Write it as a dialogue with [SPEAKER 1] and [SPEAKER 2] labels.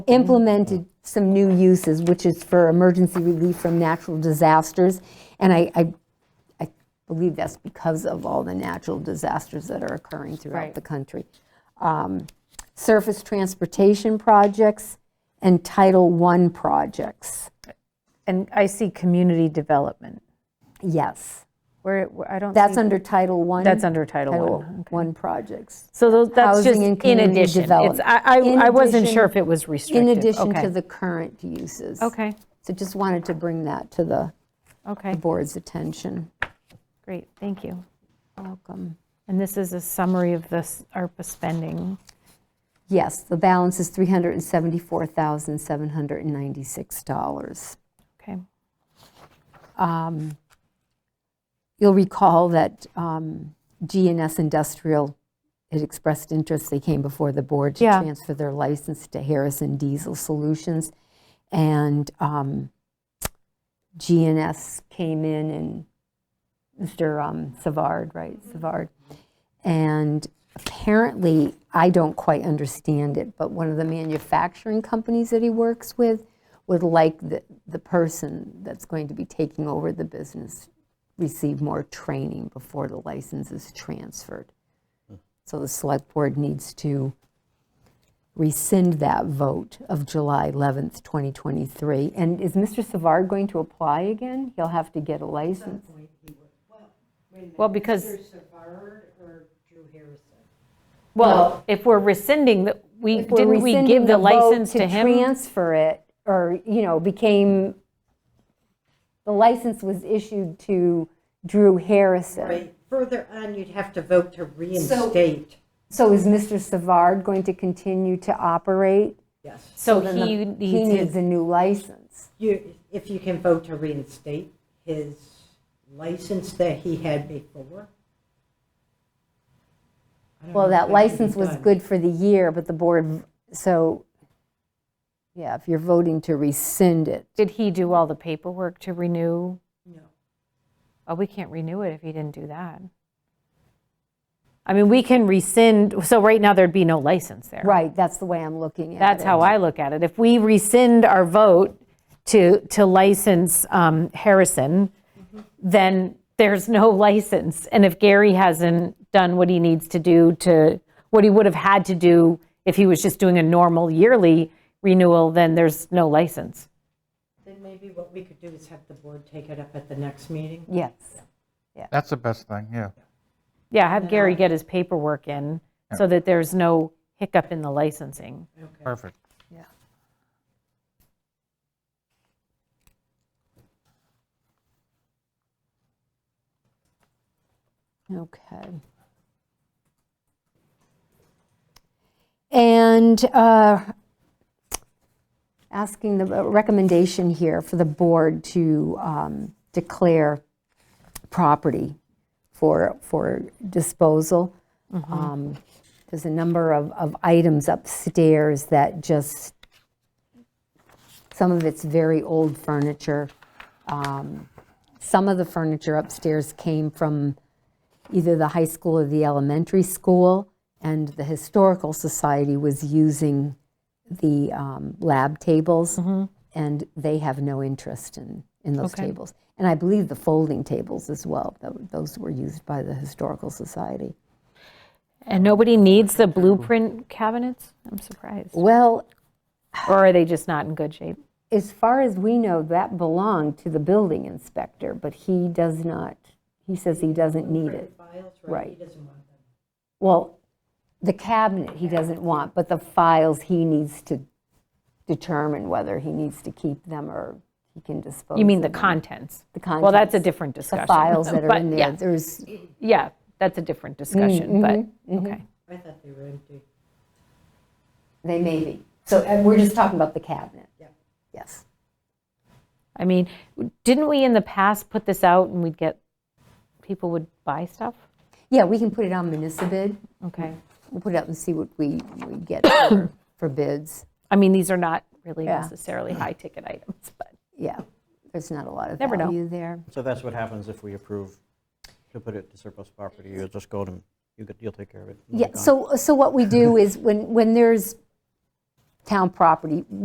[SPEAKER 1] implemented some new uses, which is for emergency relief from natural disasters. And I, I, I believe that's because of all the natural disasters that are occurring throughout
[SPEAKER 2] Right.
[SPEAKER 1] the country. Um, Surface transportation projects and Title I projects,
[SPEAKER 2] And I see community development,
[SPEAKER 1] yes.
[SPEAKER 2] where, where- I don't
[SPEAKER 1] That's
[SPEAKER 2] see,
[SPEAKER 1] under Title I.
[SPEAKER 2] that's under Title
[SPEAKER 1] Title
[SPEAKER 2] One.
[SPEAKER 1] I projects.
[SPEAKER 2] So those, that's
[SPEAKER 1] Housing
[SPEAKER 2] just
[SPEAKER 1] and
[SPEAKER 2] in
[SPEAKER 1] community
[SPEAKER 2] addition. It's,
[SPEAKER 1] development.
[SPEAKER 2] I,
[SPEAKER 1] In
[SPEAKER 2] I- I wasn't
[SPEAKER 1] addition-
[SPEAKER 2] sure if it was restricted.
[SPEAKER 1] In addition
[SPEAKER 2] Okay.
[SPEAKER 1] to the current uses.
[SPEAKER 2] Okay,
[SPEAKER 1] So just wanted to bring that to the
[SPEAKER 2] okay,
[SPEAKER 1] board's attention.
[SPEAKER 2] great, thank you.
[SPEAKER 1] Welcome.
[SPEAKER 2] And this is a summary of this ARPA spending.
[SPEAKER 1] Yes, the balance is $374,796.
[SPEAKER 2] Okay,
[SPEAKER 1] Um, You'll recall that um, GNS Industrial had expressed interest, they came before the board to
[SPEAKER 2] Yeah.
[SPEAKER 1] transfer their license to Harrison Diesel Solutions. And um, GNS came in and Mr. um, Savard, right, Savard. And apparently, I don't quite understand it, but one of the manufacturing companies that he works with would like the, the person that's going to be taking over the business receive more training before the license is transferred. So the select board needs to rescind that vote of July 11th, 2023. And is Mr. Savard going to apply again? He'll have to get a license.
[SPEAKER 2] well, because,
[SPEAKER 3] Savard or Drew Harrison?
[SPEAKER 2] well, if we're rescinding, the we,
[SPEAKER 1] If we're
[SPEAKER 2] didn't we give
[SPEAKER 1] rescinding
[SPEAKER 2] the
[SPEAKER 1] vote
[SPEAKER 2] license to him?
[SPEAKER 1] transfer it, or, you know, became, the license was issued to Drew Harrison.
[SPEAKER 3] Right, further on, you'd have to vote to reinstate.
[SPEAKER 1] So is Mr. Savard going to continue to operate?
[SPEAKER 3] Yes.
[SPEAKER 2] So
[SPEAKER 1] Then the-
[SPEAKER 2] he
[SPEAKER 1] He
[SPEAKER 2] needs
[SPEAKER 1] needs
[SPEAKER 2] his,
[SPEAKER 1] a new license.
[SPEAKER 3] You, if you can vote to reinstate his license that he had before. I don't
[SPEAKER 1] Well,
[SPEAKER 3] know if
[SPEAKER 1] that
[SPEAKER 3] can
[SPEAKER 1] license
[SPEAKER 3] be
[SPEAKER 1] was
[SPEAKER 3] done.
[SPEAKER 1] good for the year, but the board, so, yeah, if you're voting to rescind it,
[SPEAKER 2] did he do all the paperwork to renew?
[SPEAKER 3] No.
[SPEAKER 2] Oh, we can't renew it if he didn't do that. I mean, we can rescind, so right now, there'd be no license there.
[SPEAKER 1] right, that's the way I'm looking at it.
[SPEAKER 2] That's how I look at it. If we rescind our vote to, to license um, Harrison, then there's no license. And if Gary hasn't done what he needs to do to, what he would have had to do if he was just doing a normal yearly renewal, then there's no license.
[SPEAKER 3] Then maybe what we could do is have the board take it up at the next meeting.
[SPEAKER 1] Yes,
[SPEAKER 4] That's the best thing, yeah.
[SPEAKER 2] Yeah, have Gary get his paperwork in so that there's no hiccup in the licensing.
[SPEAKER 3] Okay.
[SPEAKER 4] Perfect.
[SPEAKER 1] yeah. Okay. And uh, asking the uh, recommendation here for the board to um, declare property for, for disposal. Um, There's a number of, of items upstairs that just, some of it's very old furniture. Um, Some of the furniture upstairs came from either the high school or the elementary school, and the Historical Society was using the um, lab tables, and they have no interest in, in those
[SPEAKER 2] Okay.
[SPEAKER 1] tables. And I believe the folding tables as well, tho- those were used by the Historical Society.
[SPEAKER 2] And nobody needs the blueprint cabinets? I'm surprised.
[SPEAKER 1] Well,
[SPEAKER 2] Or are they just not in good shape?
[SPEAKER 1] as far as we know, that belonged to the building inspector, but he does not, he says he doesn't need it.
[SPEAKER 3] Files,
[SPEAKER 1] Right.
[SPEAKER 3] He doesn't want them.
[SPEAKER 1] Well, the cabinet he doesn't want, but the files he needs to determine whether he needs to keep them or he can dispose.
[SPEAKER 2] You mean the
[SPEAKER 1] of them.
[SPEAKER 2] contents?
[SPEAKER 1] The
[SPEAKER 2] Well, that's a
[SPEAKER 1] Mm. contents,
[SPEAKER 2] different discussion.
[SPEAKER 1] The files that are
[SPEAKER 2] But
[SPEAKER 1] in
[SPEAKER 2] yeah,
[SPEAKER 1] there, Mm-hmm, there's,
[SPEAKER 2] Yeah, that's a different discussion, but,
[SPEAKER 1] mm-hmm.
[SPEAKER 2] okay.
[SPEAKER 3] I thought they were empty.
[SPEAKER 1] they may be. So and we're just talking about the cabinet.
[SPEAKER 3] Yeah.
[SPEAKER 1] Yes.
[SPEAKER 2] I mean, didn't we in the past put this out and we'd get, people would buy stuff?
[SPEAKER 1] Yeah, we can put it on municipal.
[SPEAKER 2] Okay.
[SPEAKER 1] We'll put it up and see what we, we get for- for bids.
[SPEAKER 2] I mean, these are not really
[SPEAKER 1] Yeah.
[SPEAKER 2] necessarily high-ticket items, but,
[SPEAKER 1] Yeah, there's not a lot of
[SPEAKER 2] Never know.
[SPEAKER 1] value there.
[SPEAKER 5] So that's what happens if we approve to put it to surplus property, you'll just go to, you get- you'll take care of it. and it'll be
[SPEAKER 1] Yeah,
[SPEAKER 5] gone.
[SPEAKER 1] so, so what we do is when, when there's town property